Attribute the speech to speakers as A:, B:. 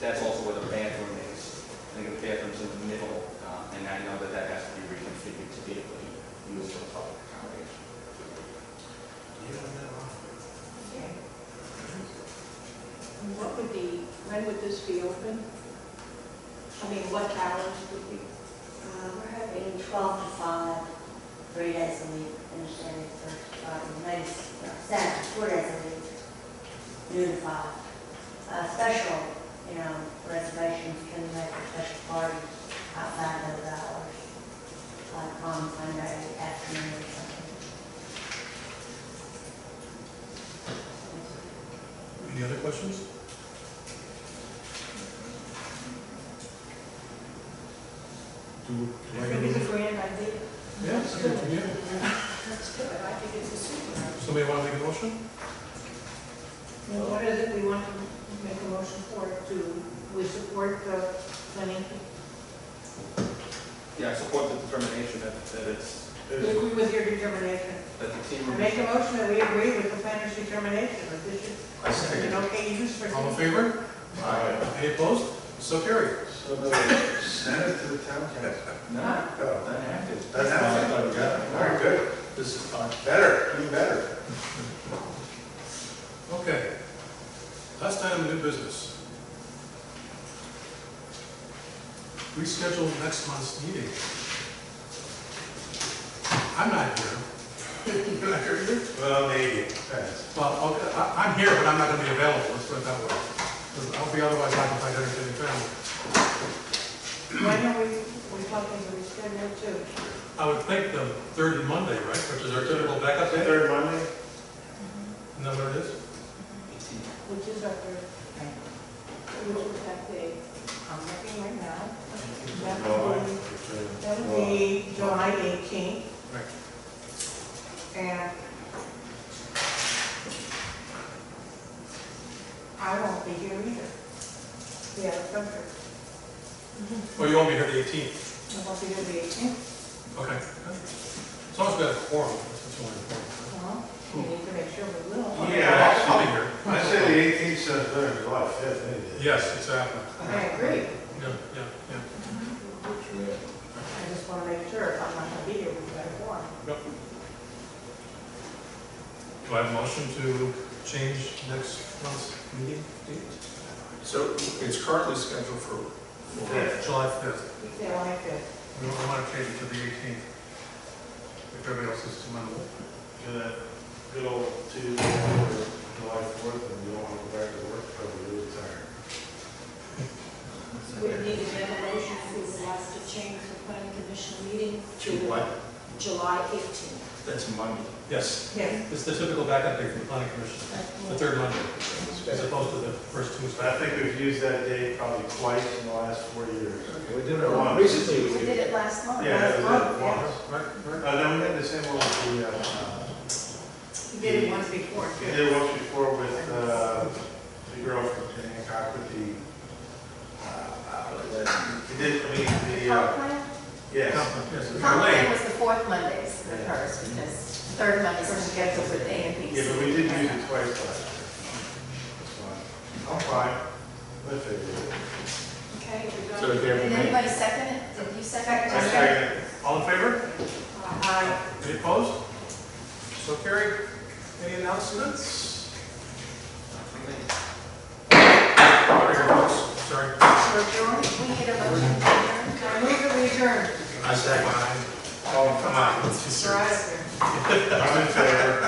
A: um, I know that that has to be reconfigured to be able to be used for public accommodation.
B: Okay. And What would the, when would this be open? I mean, what hours would be?
C: Uh, We're having 12 to 5, three days a week, and then it's uh, maybe seven, four days a week, noon to 5. Uh, Special, you know, reservations can make a special party outside those hours, like on Sunday afternoon or something.
D: Any other questions? Do, do I
B: I think it's a
D: have,
B: grand idea.
D: yeah, sure, yeah.
B: Let's do it. I think it's a super idea.
D: somebody want to make a motion?
B: Well, what is it we want to make a motion for, to, we support the planning?
A: Yeah, I support the determination that, that it's,
B: We agree with your determination.
A: that the team.
B: I make a motion that we agree with the planner's determination, that this is
A: I
B: an
A: second.
B: okay use for.
D: All in favor? Any opposed? So carried.
E: So the, send it to the town council.
A: No,
E: Oh,
A: doesn't have to.
E: Doesn't have to. Very good,
D: This is fine.
E: better, even better.
D: Okay. Last item, new business. Reschedule next month's meeting. I'm not here. You're not here either?
E: Well, maybe, depends.
D: Well, okay, I- I'm here, but I'm not going to be available, let's put it that way. 'Cause I'll be otherwise occupied entertaining family.
B: When are we, we talking, we schedule to?
D: I would think the third Monday, right, which is our typical backup day?
E: Third Monday?
D: Isn't that what it is?
B: Which is our third, which is that day? I'm looking right now. That would be- That would be July 18th.
D: Right.
B: And I won't be here either. Yeah, Gunther.
D: Well, Oh, you won't be here the 18th.
B: I won't be here the 18th.
D: Okay. As long as we have a quorum, that's what's only important.
B: Well, we need to make sure we will.
E: Yeah.
D: I'll be here.
E: I say the eighteenth, sounds better than July fifth, maybe.
D: Yes, exactly.
B: I agree.
D: Yeah, yeah, yeah.
B: I just want to make sure if I'm not going to be here, we've got a warrant.
D: Do I have a motion to change next month's meeting date?
F: So it's currently scheduled for,
E: Yeah.
D: July 5th.
B: July 5th.
D: We don't want to change it to the 18th. If everybody else is amenable.
E: Good, uh, good old Tuesday, or July fourth, and you don't want to go back to work, probably you're tired.
G: We need a motion if we would like to change the planning commission meeting
F: to
G: to
F: what?
G: July 18th.
F: That's Monday.
D: Yes,
B: Yes.
D: it's the typical backup day for the planning commission, the third Monday, as opposed to the first
E: But I
D: Tuesday.
E: think we've used that date probably twice in the last four years.
F: We did
E: it once.
F: Recently,
G: We did it last month.
E: Yeah, we did it
B: Yeah.
E: once.
D: Right, right.
E: Uh, then we had the same one with the, uh,
B: You did it once before,
E: we
B: too.
E: did it once before with, uh, the girl from Hancock with the, uh, we did, I mean, the,
G: Comp
E: uh,
G: plan?
E: yes.
D: Yes, it's
G: Comp plan
D: late.
G: was the fourth Mondays with hers, because the third Mondays were scheduled with A and B.
E: Yeah, but we did use it twice last year. That's fine. I'm fine. Let's figure it.
G: Okay, we're
F: So
G: going,
F: if they have a
G: did
F: minute-
G: anybody second it? Did you second
E: I
G: it?
E: second it.
D: All in favor?
B: I,
D: Any opposed? So carried. Any announcements? Sorry.
B: we're doing,
G: We need a motion to adjourn.
B: I move that we adjourn.
F: I second.
D: Come on.
B: We're out of here.
E: I'm in favor.